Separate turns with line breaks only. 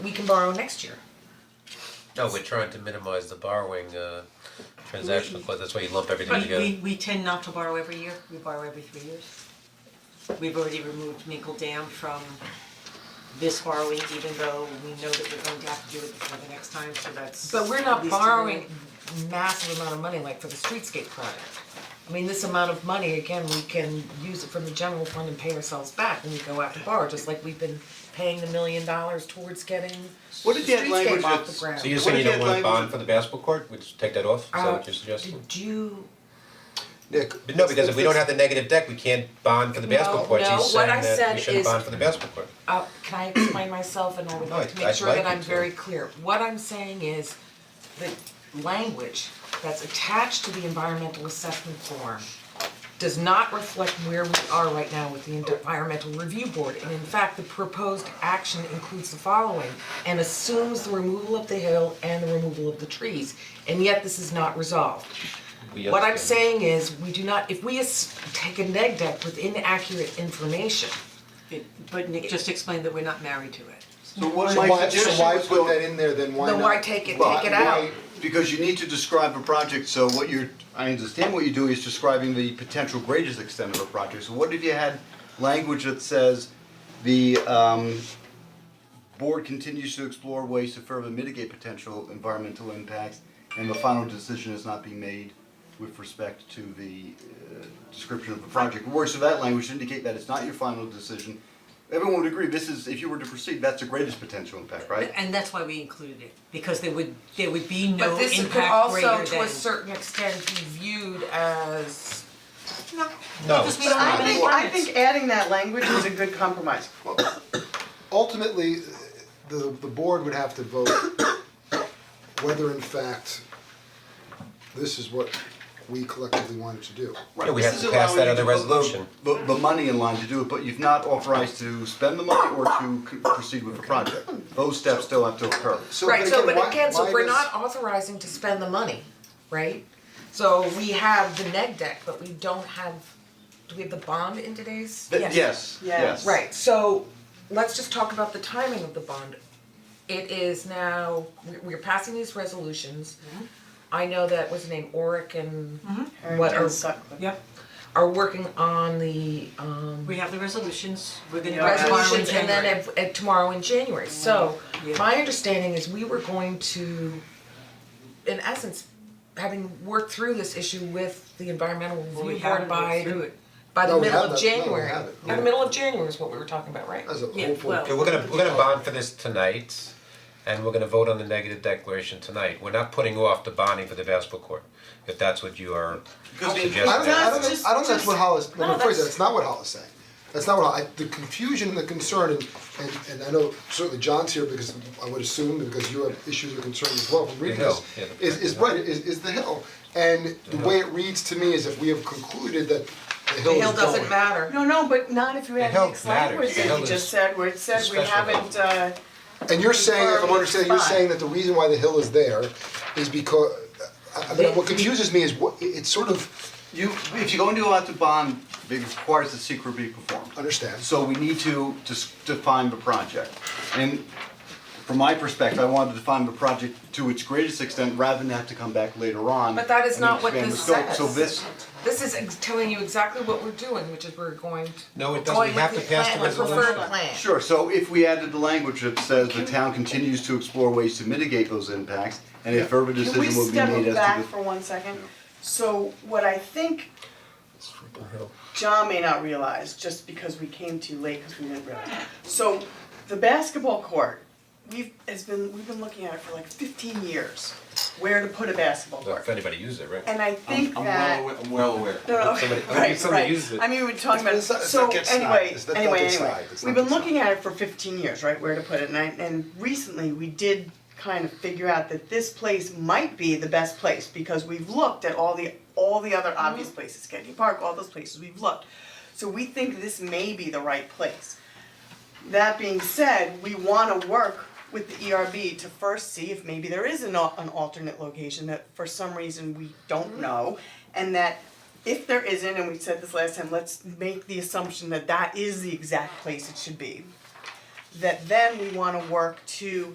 we can borrow next year.
No, we're trying to minimize the borrowing uh transactional cost, that's why you lump everything
We
together.
we we tend not to borrow every year, we borrow every three years. We've already removed Minkle Dam from this borrowing, even though we know that we're going to have to do it before the next time, so that's.
But we're
at
not
least a
borrowing
year.
massive amount of money like for the streetscape project. I mean, this amount of money, again, we can use it from the general fund and pay ourselves back when we go out to borrow, just like we've been paying the million dollars towards getting
What did that
streetscape
language
off the
that's,
ground.
So you're saying you don't want
What
a
if
bond
language-
for the basketball court, we just take that off, is that what
Uh,
you're suggesting?
Did you?
Nick?
But no, because if we don't have the negative deck, we can't bond for the basketball
No,
court,
no,
she's
what
saying
I
that
said
we shouldn't
is-
bond for the basketball court.
Uh, can I explain myself and I would like to
No,
make
I'd
sure
like
that
you
I'm
to.
very clear. What I'm saying is the language that's attached to the environmental assessment form does not reflect where we are right now with the environmental review board. And in fact, the proposed action includes the following and assumes the removal of the hill and the removal of the trees. And yet this is not resolved.
We
What I'm
understand.
saying is, we do not, if we as- take a neg deck with inaccurate information,
It- But Nick just explained that we're not married to it.
So what
So
my
why, so
suggestion
why
was
put
go.
that in there, then why not?
Then why take it,
Well,
take it
why-
out?
Because you need to describe a project, so what you're, I understand what you're doing is describing the potential greatest extent of a project, so what if you had language that says the um board continues to explore ways to further mitigate potential environmental impacts and the final decision is not being made with respect to the uh, description of the project. Words of that language indicate that it's not your final decision. Everyone would agree, this is, if you were to proceed, that's the greatest potential impact, right?
And that's why we included it, because there would, there would be no
But this
impact
could also,
greater than.
to a certain extent, be viewed as,
No,
Because we
it's
don't
not.
have any-
think- I think adding that language is a good compromise.
Ultimately, the, the board would have to vote whether in fact this is what we collectively wanted to do.
Yeah, we
This
have
is
to pass that
allowing
other
you to put
resolution.
The, the- the money in line to do it, but you've not authorized to spend the money or to c- proceed with the project. Those steps still have to occur.
So,
right, so, but
why-
again, so
why
we're
does-
not authorizing to spend the money, right? So we have the neg deck, but we don't have, do we have the bond in today's?
Th- Yes, yes.
Right, so let's just talk about the timing of the bond. It is now, we- we're passing these resolutions.
Mm-hmm.
I know that, what's the name, Oric and what are,
Yep,
are working on the, um,
we have the resolutions, we're gonna
Yeah.
borrow in
resolutions and then
January.
at at tomorrow in January, so
Yeah.
my understanding is we were going to, in essence, having worked through this issue with the environmental
Well, we
review board
haven't
by
worked through it.
by
No,
the
we
middle
have
of
that. No, we
January.
have it.
By the middle of January is what we were talking about, right?
As a
Yeah,
hopeful.
well-
Okay, we're gonna, we're gonna bond for this tonight, and we're gonna vote on the negative declaration tonight, we're not putting off the bonding for the basketball court, if that's what you are
Because the-
suggesting.
I don't, I don't, think-
Just-
I don't think that's what Hollis, let me
No,
rephrase
that's-
that, it's not what Hollis saying. That's not what, Hol- I, the confusion and the concern, and, and, and I know certainly John's here because I would assume, because you have issues or concerns as well from reading
The hill,
this,
yeah, the-
is, is right, is, is the hill. And the way it reads to me is if we have concluded that the
The
hill is going.
hill doesn't matter.
No, no, but not if you
The
add
hell
mixed
matters.
language
The
that
hell
you
is
just said, where it said we
special
haven't, uh,
And you're saying, if I'm
Confirm
understanding, you're
five.
saying that the reason why the hill is there is because, I, I mean, what confuses me is what, it's sort of,
You, if you're going to go out to bond, it requires the secret be performed.
Understand.
So we need to dis- define the project. And from my perspective, I wanted to define the project to its greatest extent rather than have to come back later on.
But that is
and
not what
expand the
this
scope. So
says.
this,
This is ex- telling you exactly what we're doing, which is we're going to.
No, it doesn't.
going
We have
with
to pass the
plan, preferred
resolution.
plan.
Sure, so if we added the language that says the town continues to explore ways to mitigate those impacts, and a further
can we
decision will be
step
made
back
as to
for one second? So what I think John may not realize, just because we came too late, because we didn't realize. So the basketball court, we've, has been, we've been looking at it for like fifteen years, where to put a basketball
Well,
court.
If anybody uses it, right?
And I think
I'm
that.
well aware, I'm well aware.
No, no, okay,
Somebody-
right,
somebody
right.
uses it.
I mean, we're talking about,
It's not- it's
so
not get snide.
anyway,
It's not-
anyway,
don't get
anyway,
snide. It's
we've
not
been
get
looking at it for fifteen years, right, where to put it, and I, and recently, we did kind of figure out that this place might be the best place, because we've looked at all the, all the other obvious
Mm-hmm.
places, Kennedy Park, all those places, we've looked. So we think this may be the right place. That being said, we wanna work with the ERB to first see if maybe there is an al- an alternate location that for some reason we don't know. And that if there isn't, and we said this last time, let's make the assumption that that is the exact place it should be. That then we wanna work to